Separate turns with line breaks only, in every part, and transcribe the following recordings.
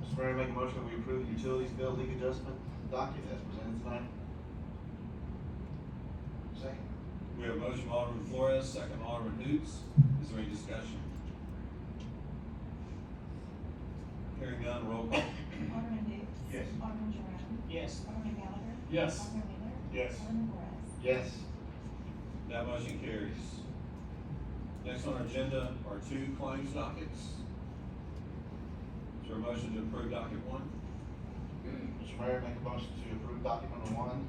Mr. Mayor, make a motion that we approve the utilities bill leak adjustment document as presented tonight. Second.
We have a motion from Alderman Flores, second Alderman Hoots. Is there any discussion? Hearing none, roll call.
Alderman Hoots.
Yes.
Alderman Jerome.
Yes.
Alderman Gallagher.
Yes.
Alderman Wheeler.
Yes.
Alderman Flores.
Yes.
That motion carries. Next on our agenda are two claims dockets. Is there a motion to approve docket one?
Hmm. Mr. Mayor, make a motion to approve document number one,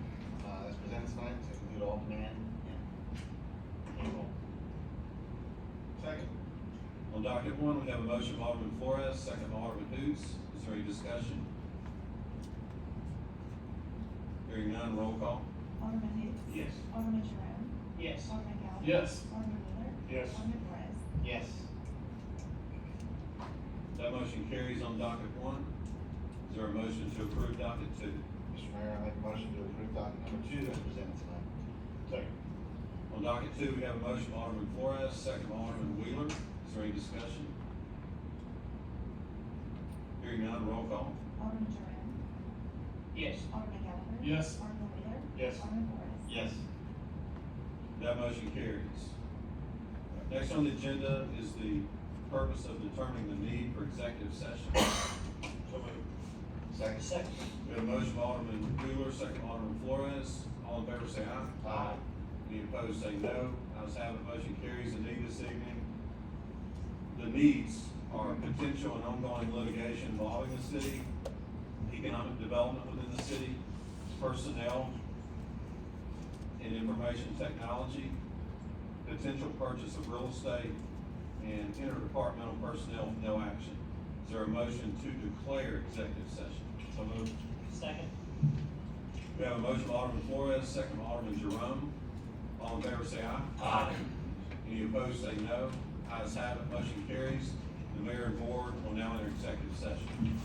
uh, as presented tonight, to include all demand and payroll. Second.
On docket one, we have a motion from Alderman Flores, second Alderman Hoots. Is there any discussion? Hearing none, roll call.
Alderman Hoots.
Yes.
Alderman Jerome.
Yes.
Alderman Gallagher.
Yes.
Alderman Wheeler.
Yes.
Alderman Flores.
Yes.
That motion carries on docket one. Is there a motion to approve docket two?
Mr. Mayor, I make a motion to approve document number two as presented tonight. Second.
On docket two, we have a motion from Alderman Flores, second from Alderman Wheeler. Is there any discussion? Hearing none, roll call.
Alderman Jerome.
Yes.
Alderman Gallagher.
Yes.
Alderman Wheeler.
Yes.
Alderman Flores.
Yes.
That motion carries. Next on the agenda is the purpose of determining the need for executive session.
Second.
Second.
We have a motion from Alderman Wheeler, second from Alderman Flores. All in favor, say aye.
Aye.
Any opposed, say no. Ayes have it, motion carries. The need this evening, the needs are potential and ongoing litigation involving the city, economic development within the city, personnel and information technology, potential purchase of real estate, and interdepartmental personnel with no action. Is there a motion to declare executive session? So moved.
Second.
We have a motion from Alderman Flores, second from Alderman Jerome. All in favor, say aye.
Aye.
Any opposed, say no. Ayes have it, motion carries. The mayor and board will now enter executive session.